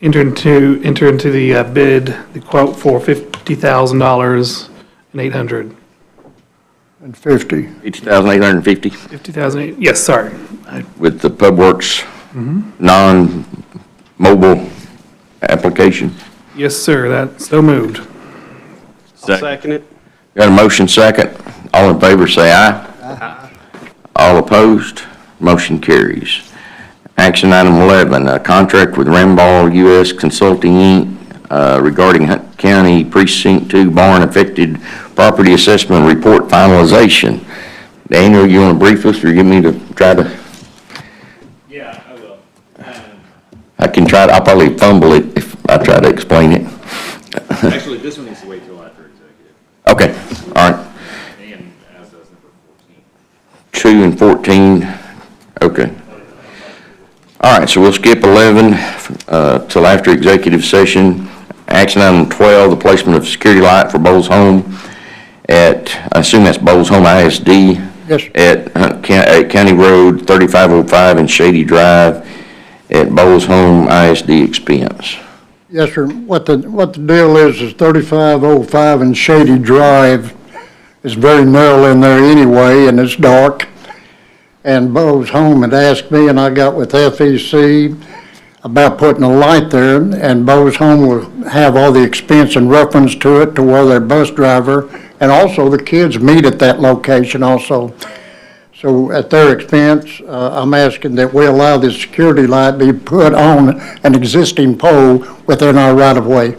enter into, enter into the uh, bid, the quote for $50,000 and 800. and 50. 8,850 50,000, yes, sorry. I- with the Pub Works non-mobile application. Yes, sir, that, so moved. I'll second it. Got a motion second. All in favor, say aye. All opposed, motion carries. Action item 11, a contract with Ramball U.S. Consulting, Inc. uh, regarding Hunt County Precinct 2 barn affected property assessment report finalization. Daniel, you want to brief us or give me to try to? Yeah, I will. Um, I can try, to- I'll probably fumble it if I try to explain it. Actually, this one needs to wait till after executive, Okay, all right, and as does number 14. two and 14, okay. All right, so we'll skip 11 uh, till after executive session. Action item 12, the placement of security light for Bowles Home at, I assume that's Bowles Home ISD. Yes, sir. At Hunt Coun- at County Road 3505 and Shady Drive at Bowles Home ISD expense. Yes, sir. What the, what the deal is, is 3505 and Shady Drive is very narrow in there anyway, and it's dark. And Bo's home had asked me, and I got with FEC about putting a light there, and Bo's home will have all the expense and reference to it to where their bus driver, and also the kids meet at that location also. So at their expense, uh, I'm asking that we allow the security light be put on an existing pole within our right-of-way.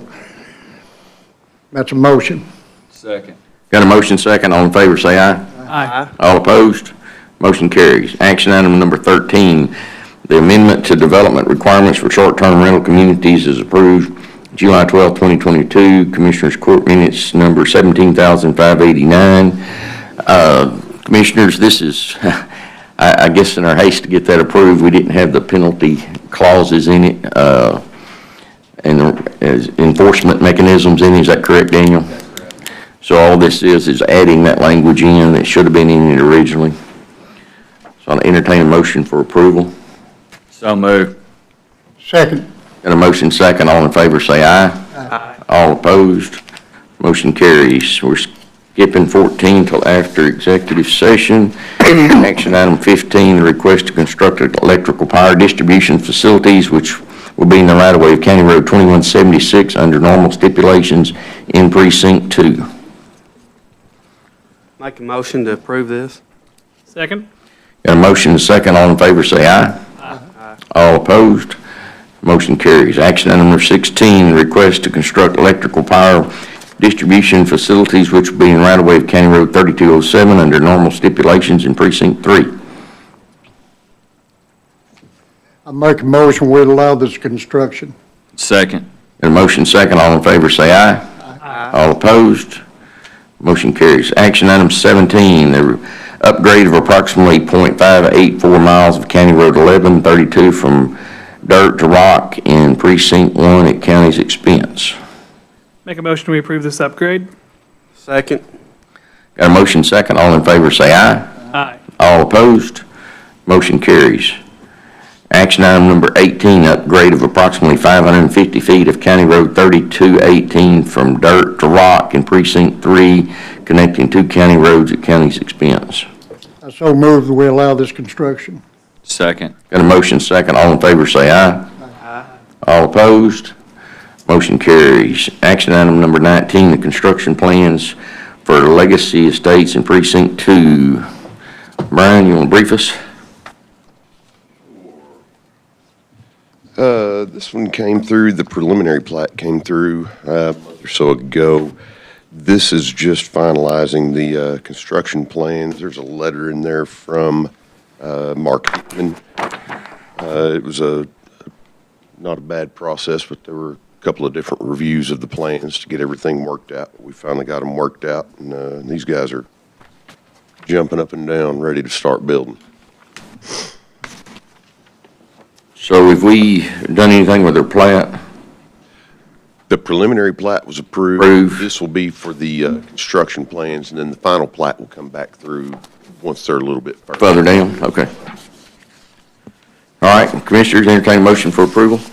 That's a motion. Second. Got a motion second, all in favor, say aye. Aye. All opposed? Motion carries. Action item number 13, the amendment to development requirements for short-term rental communities is approved July 12, 2022, Commissioners Court Minutes Number 17,589. Uh, Commissioners, this is, I I guess in our haste to get that approved, we didn't have the penalty clauses in it uh, and the- as enforcement mechanisms in it. Is that correct, Daniel? So all this is, is adding that language in that should have been in it originally. So I'll entertain a motion for approval. So moved. Second, Got a motion second, all in favor say aye. Aye. All opposed, motion carries. We're skipping 14 till after executive session. Action item 15, the request to construct electrical power distribution facilities, which will be in the right of way of County Road 2176 under normal stipulations in precinct two. Make a motion to approve this. Second? Got a motion and a second, all in favor say aye. All opposed, motion carries. Action item number 16, request to construct electrical power distribution facilities which will be in right-of-way of County Road 3207 under normal stipulations in Precinct 3. I make a motion, we allow this construction. Second. Got a motion second, all in favor say aye. All opposed, motion carries. Action item 17, the upgrade of approximately .584 miles of County Road 1132 from dirt to rock in Precinct 1 at county's expense. Make a motion, we approve this upgrade? Second. Got a motion second, all in favor say aye. Aye. All opposed, motion carries. Action item number 18, upgrade of approximately 550 feet of County Road 3218 from dirt to rock in Precinct 3, connecting two county roads at county's expense. I so move that we allow this construction. Second. Got a motion second, all in favor say aye. All opposed, motion carries. Action item number 19, the construction plans for Legacy Estates in Precinct 2. Brian, you want to brief us? Uh, This one came through, the preliminary plat came through uh, a month or so ago. This is just finalizing the uh, construction plans. There's a letter in there from uh, Mark Hickman. Uh, It was a, not a bad process, but there were a couple of different reviews of the plans to get everything worked out. We finally got them worked out, and uh, these guys are jumping up and down, ready to start building. So have we done anything with their plat? The preliminary plat was approved. Approved. This will be for the uh, construction plans, and then the final plat will come back through once they're a little bit further. Further down, okay. All right, Commissioners, entertain a motion for approval.